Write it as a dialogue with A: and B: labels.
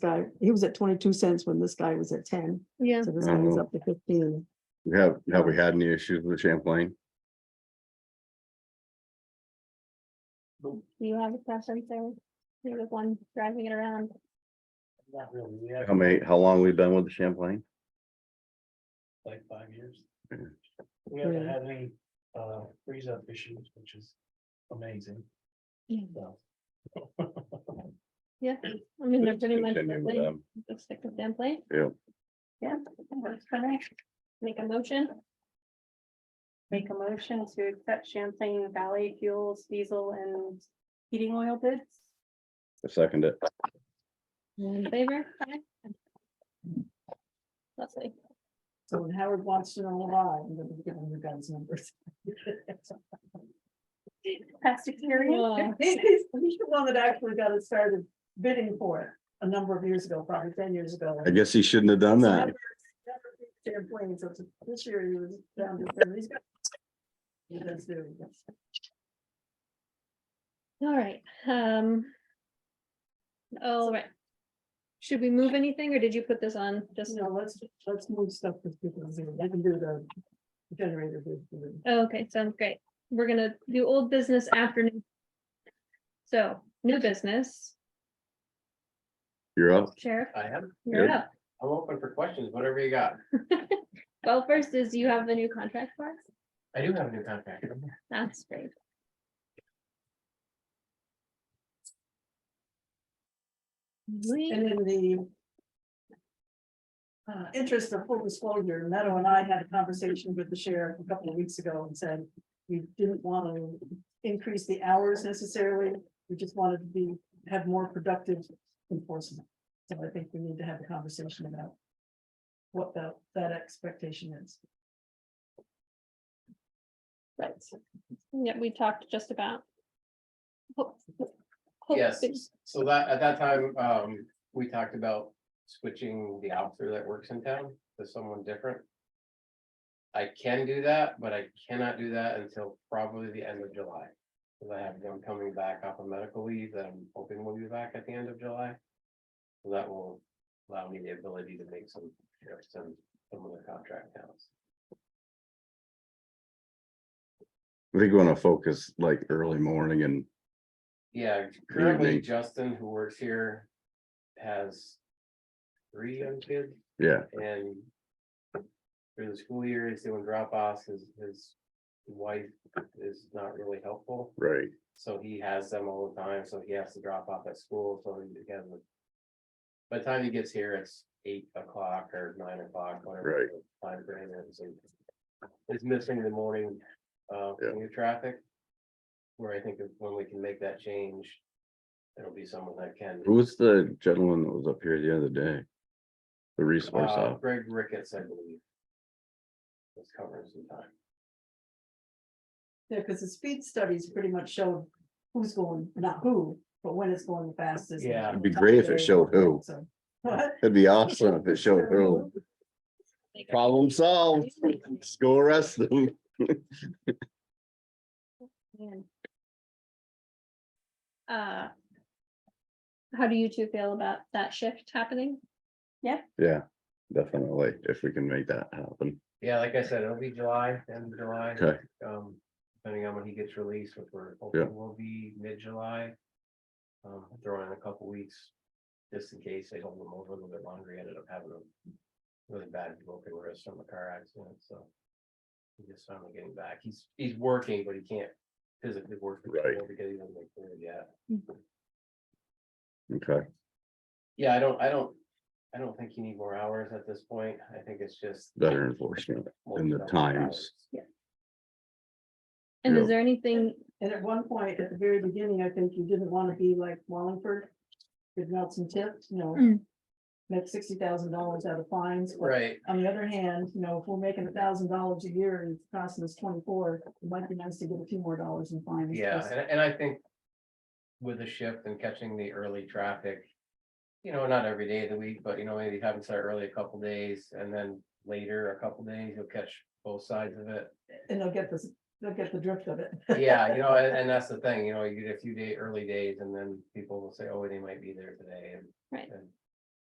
A: guy, he was at twenty-two cents when this guy was at ten,
B: Yeah,
A: so this guy was up to fifteen.
C: We Have, have we had any issues with Champlain?
B: do you have a preference there? You're the one driving it around.
D: Not really, we have
C: How many, how long we've been with the Champlain?
D: like five years.
C: Yeah.
D: We haven't
A: Yeah.
D: had any uh freeze up issues, which is amazing.
B: Yeah.
D: So.
B: Yeah, I mean, they're pretty much.
C: Continue with them.
B: Let's stick with them, play.
C: Yeah.
B: Yeah, that works for me. Make a motion.
E: Make a motion to accept Champlain Valley Fuels Diesel and Heating Oil bids.
C: I Second it.
B: All in favor? Aye. Leslie,
A: So when Howard wants to know why, I'm gonna give him your guys' numbers.
E: Past
B: Wow.
E: experience.
A: He's he's the one that actually got it started bidding for it a number of years ago, probably ten years ago.
C: I guess he shouldn't have done that.
A: Champlain, so it's- this year he was down to seven, he's got. He does do, yes.
B: all right, um. All right. Should we move anything or did you put this on just?
A: No, let's, let's move stuff to people, they can do the generator. bid for them.
B: Oh, Okay, sounds great. We're gonna do old business afternoon. So, new business,
C: You're up.
B: Sheriff,
F: I am.
B: you're
C: Good.
B: up.
F: I'm open for questions, whatever you got.
B: Well, first is you have the new contract for us.
F: I do have a new contract.
B: That's great. We-
A: And in the. Uh, interest of full disclosure, Meadow and I had a conversation with the sheriff a couple of weeks ago and said. We didn't want to increase the hours necessarily, we just wanted to be, have more productive enforcement. So I think we need to have a conversation about. What that, that expectation is. Right.
B: Yeah, we talked just about. hope- hope-
F: Yes, so that, at that time, um, we talked about switching the officer that works in town to someone different. I can do that, but I cannot do that until probably the end of July. Cause I have them coming back off of medical leave that I'm hoping will be back at the end of July. So That will allow me the ability to make some, shifts in some of the contract towns.
C: I think we want to focus like early morning and
F: Yeah, currently
C: evening.
F: Justin, who works here, has three young kids
C: yeah,
F: and through the school year, he's doing drop offs, his, his wife is not really helpful.
C: right.
F: So he has them all the time, so he has to drop off at school, so he again. By the time he gets here, it's eight o'clock or nine o'clock, whatever. the Time frame is, and it's missing the morning, uh,
C: Yeah.
F: commute traffic. Where I think if- when we can make that change, it'll be someone that can.
C: Who was the gentleman that was up here the other day? The resource
F: Uh,
C: officer.
F: Greg Ricketts, I believe. Was covering some time.
A: Yeah, because the speed studies pretty much showed who's going, not who, but when it's going the fastest.
F: Yeah.
C: It'd be great if it showed who.
A: So, What?
C: It'd be awesome if it showed early. Problem solved. Go arrest them.
B: Man. Uh. How do you two feel about that shift happening?
C: Yeah, definitely. If we can make that happen.
F: Yeah, like I said, it'll be July, end of July.
C: Okay.
F: Um, depending on when he gets released, which we're hoping will be mid-July. Um, throw in a couple weeks, just in case they hold him over a little bit longer, he ended up having a really bad broken wrist from a car accident, so. He just finally getting back, he's, he's working, but he can't physically work. for
C: Right.
F: people Because he doesn't make food yet.
C: Okay,
F: Yeah, I don't, I don't, I don't think you need more hours at this point. I think it's just.
C: better enforcement. And the
F: multiple
C: times.
F: hours.
B: And
C: Yeah.
B: is there anything,
A: And at one point, at the very beginning, I think you didn't want to be like Wallingford. With Nelson Tipped, you know.
B: Mm.
A: Make sixty thousand dollars out of fines. but
F: Right,
A: On the other hand, you know, if we're making a thousand dollars a year and it's costing us twenty-four, it might be nice to get a few more dollars in fines.
F: Yeah,
A: just-
F: and, and I think with the shift and catching the early traffic, you know, not every day of the week, but you know, maybe having started early a couple days and then later a couple days, you'll catch both sides of it.
A: And they'll get this, they'll get the drift of it.
F: Yeah, you know, and, and that's the thing, you know, you get a few day, early days and then people will say, oh, they might be there today and.
B: Right.
F: and